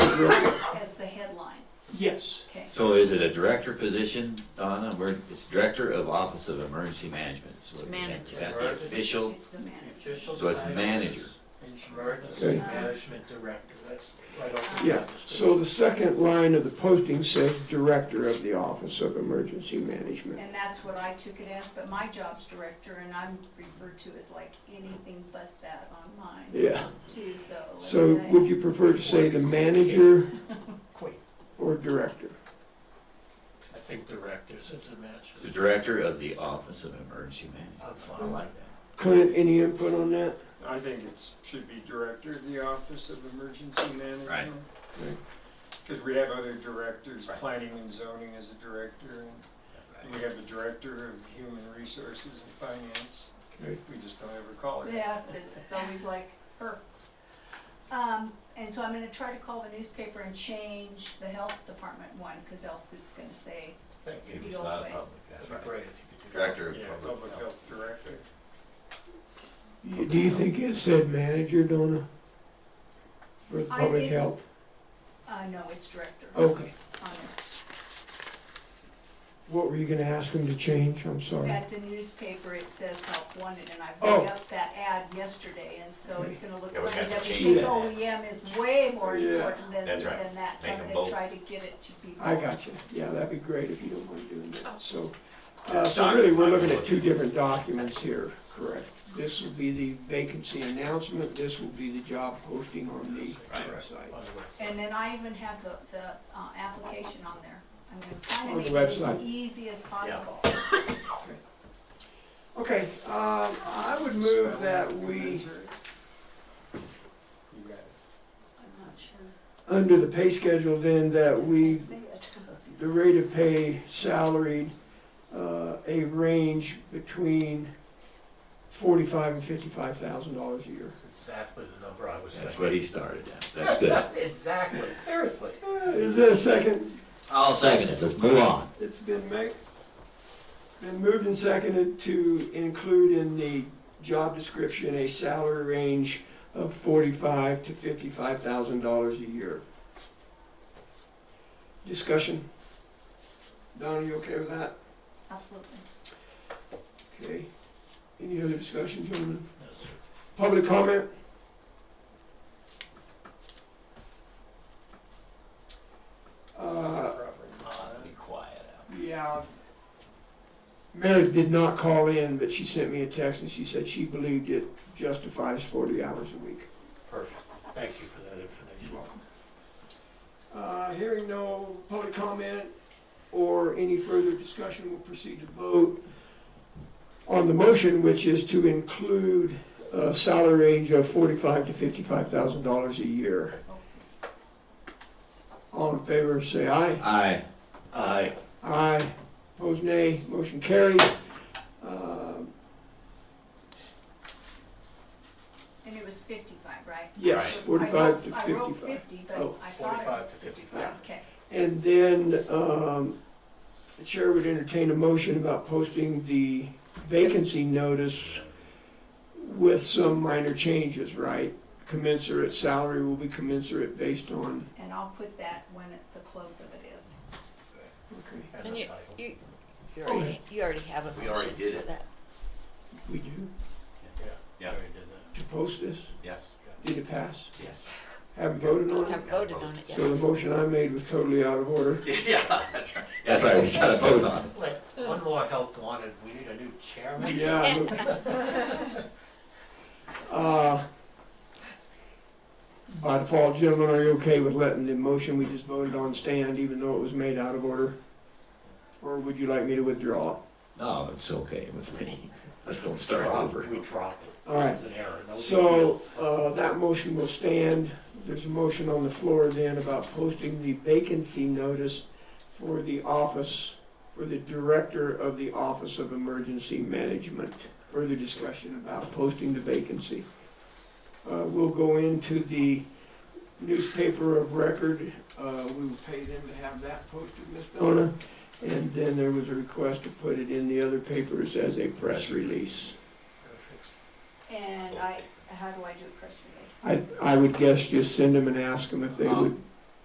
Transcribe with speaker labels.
Speaker 1: director as the headline,
Speaker 2: Yes,
Speaker 1: okay?
Speaker 3: So is it a director position, Donna? Where, it's Director of Office of Emergency Management. So
Speaker 4: It's
Speaker 3: is that-
Speaker 4: manager.
Speaker 3: Is that the official?
Speaker 1: It's the manager.
Speaker 5: Official
Speaker 3: So it's
Speaker 5: title
Speaker 3: manager.
Speaker 5: is Emergency
Speaker 2: Okay.
Speaker 5: Management Director, that's right off the.
Speaker 2: yeah. So the second line of the posting says Director of the Office of Emergency Management.
Speaker 1: And that's what I took it as, but my job's director, and I'm referred to as like anything but that on mine,
Speaker 2: Yeah.
Speaker 1: too, so.
Speaker 2: So
Speaker 1: okay.
Speaker 2: would you prefer to say the manager
Speaker 5: Queen,
Speaker 2: or director?
Speaker 5: I think Director since the
Speaker 3: It's the
Speaker 5: manager.
Speaker 3: Director of the Office of Emergency Management.
Speaker 5: I'm
Speaker 3: I
Speaker 5: fine.
Speaker 3: like
Speaker 2: Clint, any input on that?
Speaker 6: I think it should be director of the Office of Emergency
Speaker 3: Right.
Speaker 6: Management.
Speaker 2: Right.
Speaker 6: Because we have other directors,
Speaker 3: Right.
Speaker 6: planning and zoning as a director, and we have the director of human resources and finance.
Speaker 2: Okay.
Speaker 6: We just don't ever call it.
Speaker 1: Yeah, it's always like her. Um, and so I'm gonna try to call the newspaper and change the health department one, cause else it's gonna say,
Speaker 5: Thank you.
Speaker 3: it. It's not a public, that's
Speaker 5: That'd be
Speaker 3: right.
Speaker 5: great if you could do that.
Speaker 3: Director of
Speaker 6: Yeah,
Speaker 3: Public
Speaker 6: public
Speaker 3: Health.
Speaker 6: health director.
Speaker 2: Do you think it said manager, Donna? For
Speaker 1: I
Speaker 2: public
Speaker 1: think-
Speaker 2: health?
Speaker 1: uh, no, it's director.
Speaker 2: Okay.
Speaker 1: On it.
Speaker 2: What were you gonna ask him to change? I'm sorry.
Speaker 1: At the newspaper, it says help wanted, and I
Speaker 2: Oh.
Speaker 1: picked up that ad yesterday, and so it's gonna look
Speaker 7: Yeah, we
Speaker 1: like
Speaker 7: have to
Speaker 1: WC
Speaker 7: change that.
Speaker 1: OEM is way more
Speaker 2: Yeah.
Speaker 1: important than, than
Speaker 7: That's right.
Speaker 1: that, so
Speaker 7: Make
Speaker 1: I'm gonna
Speaker 7: them both.
Speaker 1: try to get it to be.
Speaker 2: I
Speaker 1: bold.
Speaker 2: got you. Yeah, that'd be great if you don't mind doing that. So, uh,
Speaker 7: Uh,
Speaker 2: so really, we're
Speaker 7: document,
Speaker 2: looking at two
Speaker 7: absolutely.
Speaker 2: different documents here, correct? This will be the vacancy announcement, this will be the job posting on the
Speaker 7: Right.
Speaker 2: website.
Speaker 5: On the website.
Speaker 1: And then I even have the, the, uh, application on there. I'm gonna try to
Speaker 2: On
Speaker 1: make
Speaker 2: the
Speaker 1: it as
Speaker 2: website.
Speaker 1: easy as possible.
Speaker 2: Okay, um, I would move that we,
Speaker 6: You got it.
Speaker 1: I'm not sure.
Speaker 2: under the pay schedule then, that we
Speaker 1: Say it.
Speaker 2: the rate of pay salaried, uh, a range between forty-five and fifty-five thousand dollars a year.
Speaker 5: Exactly the number I was
Speaker 3: That's
Speaker 5: thinking.
Speaker 3: what he started at. That's good.
Speaker 5: Exactly, seriously.
Speaker 2: Uh, Is there a second?
Speaker 3: I'll second it. Let's move on.
Speaker 2: It's been made, been moved and seconded to include in the job description a salary range of forty-five to fifty-five thousand dollars a year. Discussion? Don, you okay with that?
Speaker 1: Absolutely.
Speaker 2: Okay. Any other discussion, gentlemen?
Speaker 5: No, sir.
Speaker 2: Public comment? Uh,
Speaker 6: Proper.
Speaker 7: Be quiet out.
Speaker 2: yeah. Meredith did not call in, but she sent me a text and she said she believed it justifies forty hours a week.
Speaker 5: Perfect, thank you for that information.
Speaker 2: Uh, hearing no public comment or any further discussion, we'll proceed to vote on the motion, which is to include a salary range of forty-five to fifty-five thousand dollars a year. All in favor, say aye.
Speaker 3: Aye. Aye.
Speaker 2: Aye. Opposed, nay. Motion carried. Um,
Speaker 1: And it was fifty-five, right?
Speaker 2: Yes,
Speaker 1: I
Speaker 2: forty-five to
Speaker 1: wrote- I wrote
Speaker 2: fifty-five.
Speaker 1: fifty, but
Speaker 2: Oh.
Speaker 1: I thought it
Speaker 5: 45
Speaker 1: was
Speaker 5: to
Speaker 1: 55. Okay.
Speaker 2: And then, um, the chair would entertain a motion about posting the vacancy notice with some minor changes, right? Commensurate salary will be commensurate based on,
Speaker 1: And I'll put that when it- the close of it is.
Speaker 2: okay,
Speaker 5: And
Speaker 4: And
Speaker 5: the
Speaker 4: you,
Speaker 5: title.
Speaker 4: you, you
Speaker 2: Oh,
Speaker 4: already, you already have a
Speaker 7: We already
Speaker 4: motion
Speaker 7: did
Speaker 4: for
Speaker 7: it.
Speaker 4: that.
Speaker 2: we do,
Speaker 5: Yeah.
Speaker 7: Yeah.
Speaker 5: Already did that.
Speaker 2: to post this?
Speaker 7: Yes,
Speaker 2: Did it pass?
Speaker 7: yes.
Speaker 2: Haven't voted on
Speaker 4: Have
Speaker 2: it?
Speaker 4: voted on it yet.
Speaker 2: So the motion I made was totally out of order.
Speaker 7: Yeah.
Speaker 3: That's right. We gotta vote on it.
Speaker 5: Wait, one more help wanted, we need a new chairman.
Speaker 2: Yeah. look. Uh, By default, gentlemen, are you okay with letting the motion we just voted on stand even though it was made out of order? Or would you like me to withdraw it?
Speaker 3: No, it's okay with me. Let's don't start
Speaker 5: Drop,
Speaker 3: over.
Speaker 5: we drop it.
Speaker 2: All right.
Speaker 5: It's an error. No big deal.
Speaker 2: So, uh, that motion will stand. There's a motion on the floor then about posting the vacancy notice for the office, for the director of the Office of Emergency Management. Further discussion about posting the vacancy. Uh, We'll go into the newspaper of record. Uh, We will pay them to have that posted, Ms. Donna. And then there was a request to put it in the other papers as a press release.
Speaker 5: Perfect.
Speaker 1: And I, how do I do a press release?
Speaker 2: I, I would guess just send them and ask them if they would
Speaker 3: Um,